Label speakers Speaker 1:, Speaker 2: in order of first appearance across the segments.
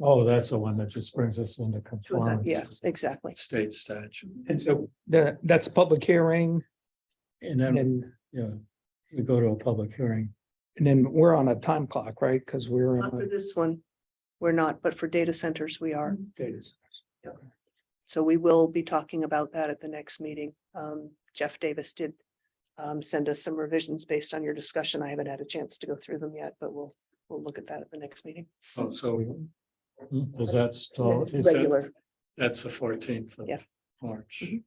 Speaker 1: Oh, that's the one that just brings us into compliance.
Speaker 2: Yes, exactly.
Speaker 1: State statute.
Speaker 3: And so that, that's a public hearing
Speaker 1: And
Speaker 3: and
Speaker 1: then,
Speaker 3: then,
Speaker 1: yeah, we go to a public hearing.
Speaker 3: and then we're on a time clock, right? Because we're, in
Speaker 2: Not for
Speaker 3: a-
Speaker 2: this one, we're not, but for data centers, we are.
Speaker 1: Data centers.
Speaker 2: So we will be talking about that at the next meeting. Um, Jeff Davis did um, send us some revisions based on your discussion. I haven't had a chance to go through them yet, but we'll, we'll look at that at the next meeting.
Speaker 4: Oh, so
Speaker 1: Hmm, Does that stall? Is that
Speaker 2: Regular,
Speaker 4: that's the fourteenth of
Speaker 2: Yeah.
Speaker 4: March.
Speaker 2: Mhm.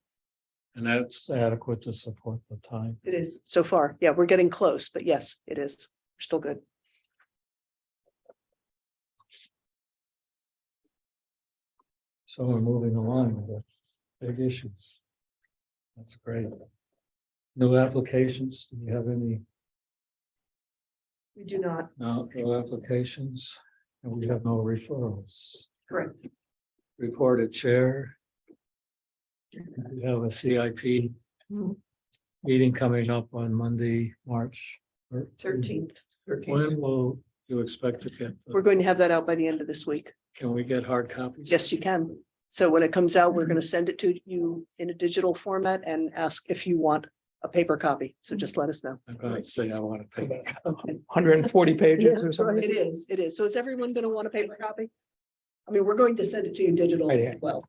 Speaker 4: And that's,
Speaker 1: it's adequate to support the time?
Speaker 2: it is. So far, yeah, we're getting close, but yes, it is. We're still good.
Speaker 1: So we're moving along with big issues. That's great. No applications? Do you have any?
Speaker 2: We do not.
Speaker 1: No, no applications, and we have no referrals.
Speaker 2: Correct.
Speaker 1: Reported chair. We have a CIP
Speaker 2: Hmm.
Speaker 1: meeting coming up on Monday, March. 13th.
Speaker 2: Thirteenth.
Speaker 1: When will you expect to get, the-
Speaker 2: We're going to have that out by the end of this week.
Speaker 1: can we get hard copies?
Speaker 2: Yes, you can. So when it comes out, we're going to send it to you in a digital format and ask if you want a paper copy. So just let us know.
Speaker 4: I'm gonna say I want to pay.
Speaker 3: hundred and forty pages or something.
Speaker 2: It is, it is. So is everyone going to want a paper copy? I mean, we're going to send it to you digital
Speaker 3: Right,
Speaker 2: as
Speaker 3: yeah.
Speaker 2: well.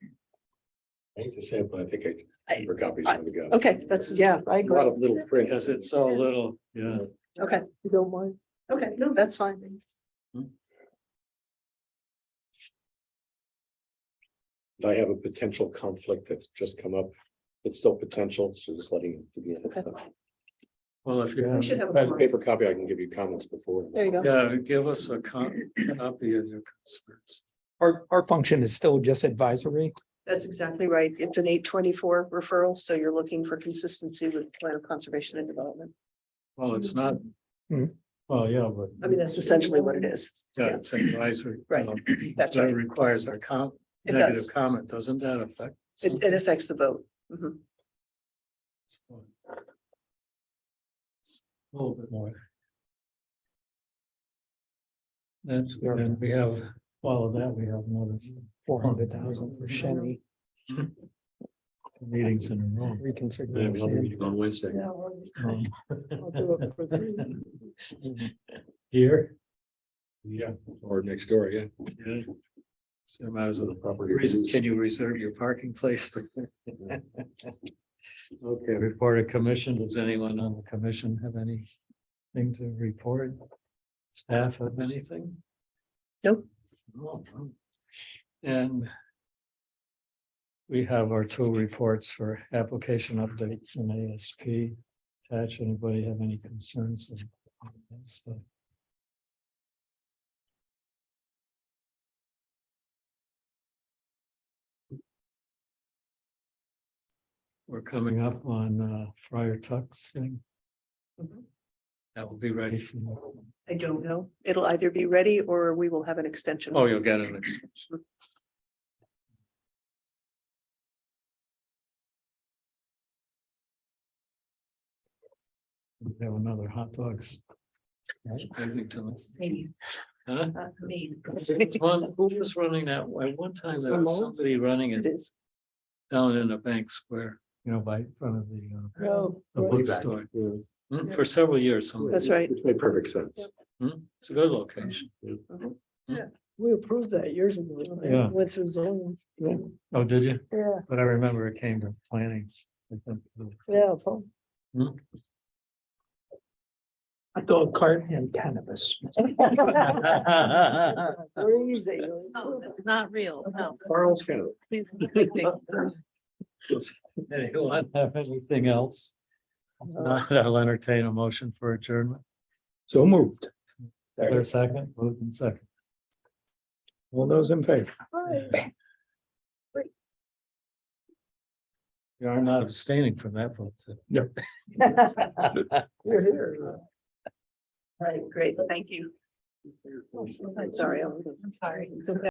Speaker 5: I hate to say it, but I think I.
Speaker 2: I-
Speaker 5: paper copies
Speaker 2: I-
Speaker 5: are the go.
Speaker 2: Okay, that's, yeah, I
Speaker 5: A lot
Speaker 2: agree.
Speaker 5: of little print.
Speaker 4: Because it's so little, yeah.
Speaker 2: Okay. You don't mind? Okay, no, that's fine.
Speaker 5: I have a potential conflict that's just come up. It's still potential, so just letting it be.
Speaker 2: Okay.
Speaker 4: Well, if
Speaker 1: Yeah.
Speaker 4: you,
Speaker 2: We should have. a
Speaker 5: But
Speaker 2: form.
Speaker 5: paper copy, I can give you comments before.
Speaker 2: There you go.
Speaker 4: yeah, give us a co- copy of your concerns.
Speaker 3: Our, our function is still just advisory.
Speaker 2: That's exactly right. It's an eight twenty-four referral, so you're looking for consistency with plan of conservation and development.
Speaker 4: Well, it's not,
Speaker 1: Well, yeah, but.
Speaker 2: Hmm. I mean, that's essentially what it is.
Speaker 4: yeah, it's advisory.
Speaker 2: Right.
Speaker 4: um,
Speaker 2: That's
Speaker 4: That
Speaker 2: right.
Speaker 4: requires a com,
Speaker 2: It
Speaker 4: negative
Speaker 2: does.
Speaker 4: comment, doesn't that affect?
Speaker 2: It, it affects the vote. Mhm.
Speaker 4: something?
Speaker 1: A little bit more. That's, and we have, follow that, we have another
Speaker 3: Four hundred thousand for Shenny
Speaker 1: two meetings in a row.
Speaker 3: reconfiguration.
Speaker 5: on Wednesday.
Speaker 1: Um,
Speaker 2: Well,
Speaker 1: Here,
Speaker 5: Yeah. Or next door, yeah.
Speaker 4: Yeah. So might as well,
Speaker 5: Property.
Speaker 4: reason, can you reserve your parking place?
Speaker 1: okay, report of commission. Does anyone on the commission have anything to report? Staff have anything?
Speaker 2: Nope.
Speaker 1: No, no. And we have our two reports for application updates and ASP. Attach, anybody have any concerns? of that stuff? We're coming up on uh, Friar Tuck's thing.
Speaker 2: Mhm.
Speaker 4: That will be ready.
Speaker 2: I don't know. It'll either be ready or we will have an extension.
Speaker 4: Oh, you'll get an extension.
Speaker 1: We have another hot dogs.
Speaker 4: Irvington.
Speaker 2: Maybe.
Speaker 4: Huh?
Speaker 2: Uh, I mean,
Speaker 4: One, who was running that? At one time, there was
Speaker 3: Ramones?
Speaker 4: somebody running
Speaker 2: It
Speaker 4: it
Speaker 2: is.
Speaker 4: down in the bank square,
Speaker 1: You know, by in front of the. uh,
Speaker 2: No.
Speaker 1: the
Speaker 5: Way back.
Speaker 1: bookstore.
Speaker 5: Yeah.
Speaker 4: Mm, for several years, somebody.
Speaker 2: That's right.
Speaker 5: Which made perfect sense.
Speaker 2: Yep.
Speaker 1: Hmm?
Speaker 4: Mm, It's a good location.
Speaker 6: We approved that years ago.
Speaker 1: Yeah.
Speaker 6: Went through zoning.
Speaker 1: Oh, did you?
Speaker 6: Yeah,
Speaker 1: But I remember it came to planning. I think,
Speaker 6: yeah. so-
Speaker 3: A dog cart and cannabis.
Speaker 1: Hmm?
Speaker 6: Crazy.
Speaker 2: Oh,
Speaker 7: Not real, no.
Speaker 5: Carl's kind of.
Speaker 7: Please.
Speaker 1: Anyone have anything else? Not, I'll entertain a motion for adjournment.
Speaker 3: So moved.
Speaker 1: Is there a second? Moved and second.
Speaker 3: All those in favor?
Speaker 1: You are not abstaining from that vote. so-
Speaker 6: You're here.
Speaker 2: Right, great. Thank you. I'm sorry. I'm sorry.